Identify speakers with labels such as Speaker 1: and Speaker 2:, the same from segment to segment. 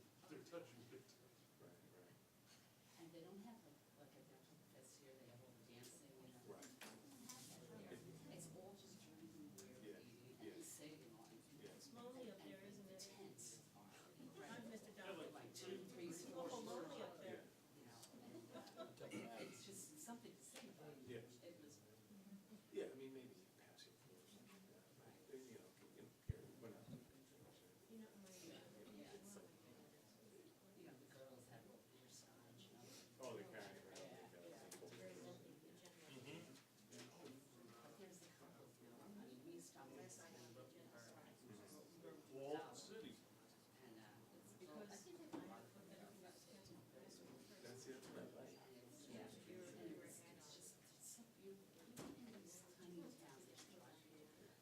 Speaker 1: touching it.
Speaker 2: Right, right,
Speaker 3: And they don't have like, like a dental this year, they have all the dancing and.
Speaker 2: Right.
Speaker 3: Right. It's all just drinking
Speaker 2: Yeah,
Speaker 3: beer, eating,
Speaker 2: yeah.
Speaker 3: and saving on.
Speaker 2: yes.
Speaker 4: It's lonely up there, isn't it?
Speaker 3: Tense.
Speaker 4: I'm Mr.
Speaker 1: Yeah,
Speaker 4: Donovan.
Speaker 3: Like two, three
Speaker 4: It's
Speaker 3: stores.
Speaker 4: awful lonely up
Speaker 2: Yeah,
Speaker 4: there.
Speaker 3: You know, it's just something to sing about.
Speaker 2: Yeah.
Speaker 3: It was,
Speaker 2: yeah, I mean, maybe passing through or something like that, but, you know, you know, here, we're not. doing anything,
Speaker 4: You know, my.
Speaker 3: yeah, it's like, you know, the girls had all their signs, you know.
Speaker 2: so. Oh, they're carrying around,
Speaker 3: Yeah,
Speaker 2: they've got
Speaker 4: It's
Speaker 2: people.
Speaker 4: very lonely in general.
Speaker 1: Mm-hmm.
Speaker 3: But there's the couples now, I mean, we stopped last night and looked at her. we were
Speaker 1: Walled
Speaker 3: out,
Speaker 1: city.
Speaker 3: And, uh, it's.
Speaker 4: Because I
Speaker 3: think
Speaker 4: think
Speaker 3: they-
Speaker 4: I put
Speaker 2: That's it, right?
Speaker 3: It's, yeah, it's, it's just, it's so beautiful, even in these tiny towns that you drive through, it all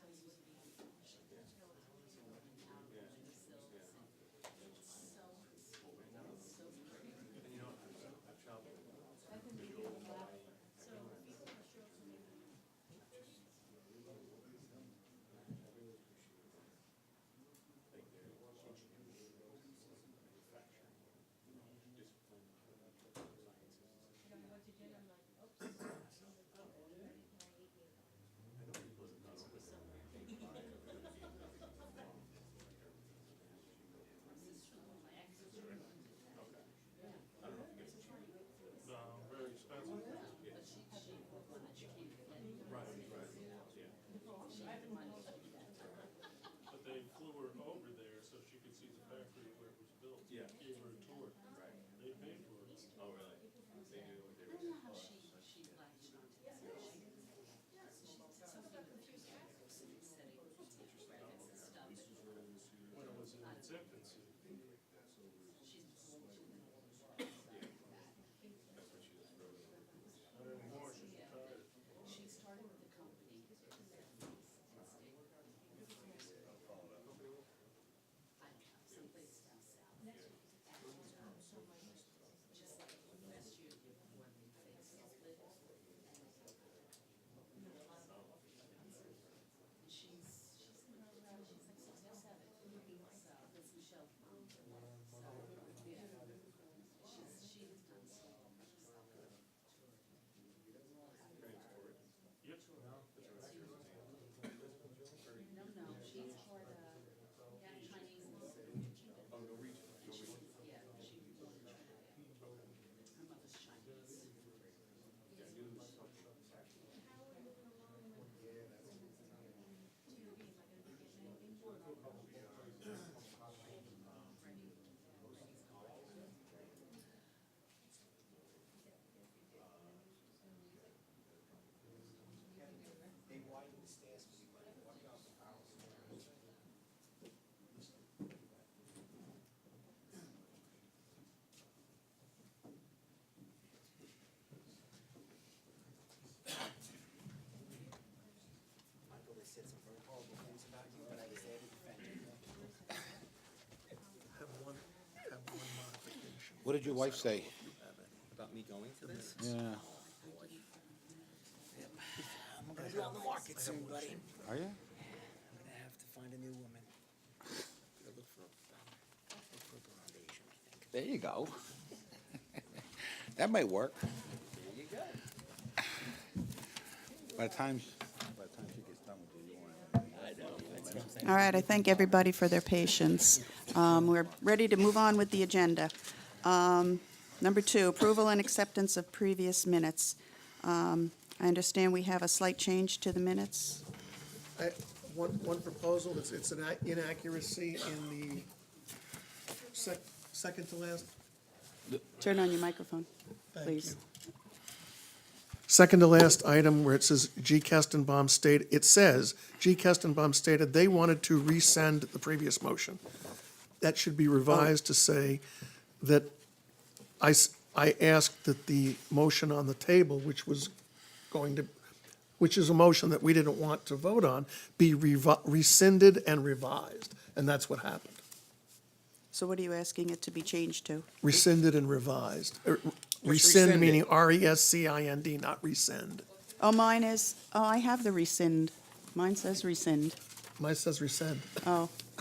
Speaker 3: comes with the
Speaker 2: Yeah.
Speaker 3: flowers all in town, and the silks, and it's so, it's so pretty.
Speaker 2: And you know, I've, I've traveled,
Speaker 3: I've been thinking about,
Speaker 4: So people are sure to me.
Speaker 2: I think they're engineering, manufacturing, discipline, sciences.
Speaker 4: You know, what you did, I'm like, oops.
Speaker 2: I know people that
Speaker 4: I
Speaker 2: not only.
Speaker 3: my sister, my ex, yeah,
Speaker 2: I don't know if it gets
Speaker 1: No, Um, very
Speaker 3: but she,
Speaker 1: expensive.
Speaker 3: she, when she came to get.
Speaker 2: Right, right, yeah.
Speaker 3: She didn't want to do that.
Speaker 1: But they flew her over there so she could see the factory where it was built.
Speaker 2: Yeah.
Speaker 1: Gave her a tour.
Speaker 2: Right.
Speaker 1: They paid for it.
Speaker 2: Oh, really? They knew what they
Speaker 3: I
Speaker 2: were.
Speaker 3: don't know how she, she latched onto this. She- She did something with the city, city, graphics and stuff.
Speaker 1: When it was in its infancy.
Speaker 3: She's old, she's been all the world, so that.
Speaker 2: That's what she was really.
Speaker 1: Not anymore, she's retired.
Speaker 3: She started with the company. in the 70s and stayed with her I don't know, someplace down south. Just like last year, when they split. And she's, she's, in her around- she's like sixty-seven, so that's Michelle. So, yeah, she's, she has done so much stuff.
Speaker 1: Yep.
Speaker 3: No, no, she's part of, yeah, Chinese.
Speaker 2: Oh, Norwegian,
Speaker 3: She's,
Speaker 2: Norwegian.
Speaker 3: yeah, she was born in China, yeah. Her mother's Chinese.
Speaker 2: Yeah, I knew it was something.
Speaker 5: They widened the stairs for you, but walk out the house. Michael, they said some very horrible things about you, but I was there to defend you.
Speaker 6: What did your wife say?
Speaker 5: About me going to this?
Speaker 6: Yeah.
Speaker 5: I'm gonna be on the market soon, buddy.
Speaker 6: Are
Speaker 5: I'm
Speaker 6: you?
Speaker 5: gonna have to find a new woman. Gonna look for, a- look for a blonde Asian, I think.
Speaker 6: There you go. That might work.
Speaker 5: There you go.
Speaker 6: By the time, by the time she gets done with you, you want.
Speaker 7: All right, I thank everybody for their patience. Um, We're ready to move on with the agenda. Um, Number two, approval and acceptance of previous minutes. Um, I understand we have a slight change to the minutes.
Speaker 8: I- One, one proposal, it's, it's an inaccuracy in the sec, second to last.
Speaker 7: Turn on your microphone, please.
Speaker 8: Second to last item where it says G. Kestenbaum stated, it says, G. Kestenbaum stated they wanted to resend the previous motion. That should be revised to say that I, s- I asked that the motion on the table, which was going to, which is a motion that we didn't want to vote on, be revi- rescinded and revised. And that's what happened.
Speaker 7: So what are you asking it to be changed to?
Speaker 8: Rescinded and revised. Er, Rescind
Speaker 5: rescind
Speaker 8: meaning R E S C I N D, not rescind.
Speaker 7: Oh, mine is, oh, I have the rescind. Mine says rescind.
Speaker 8: Mine says rescind.
Speaker 7: Oh,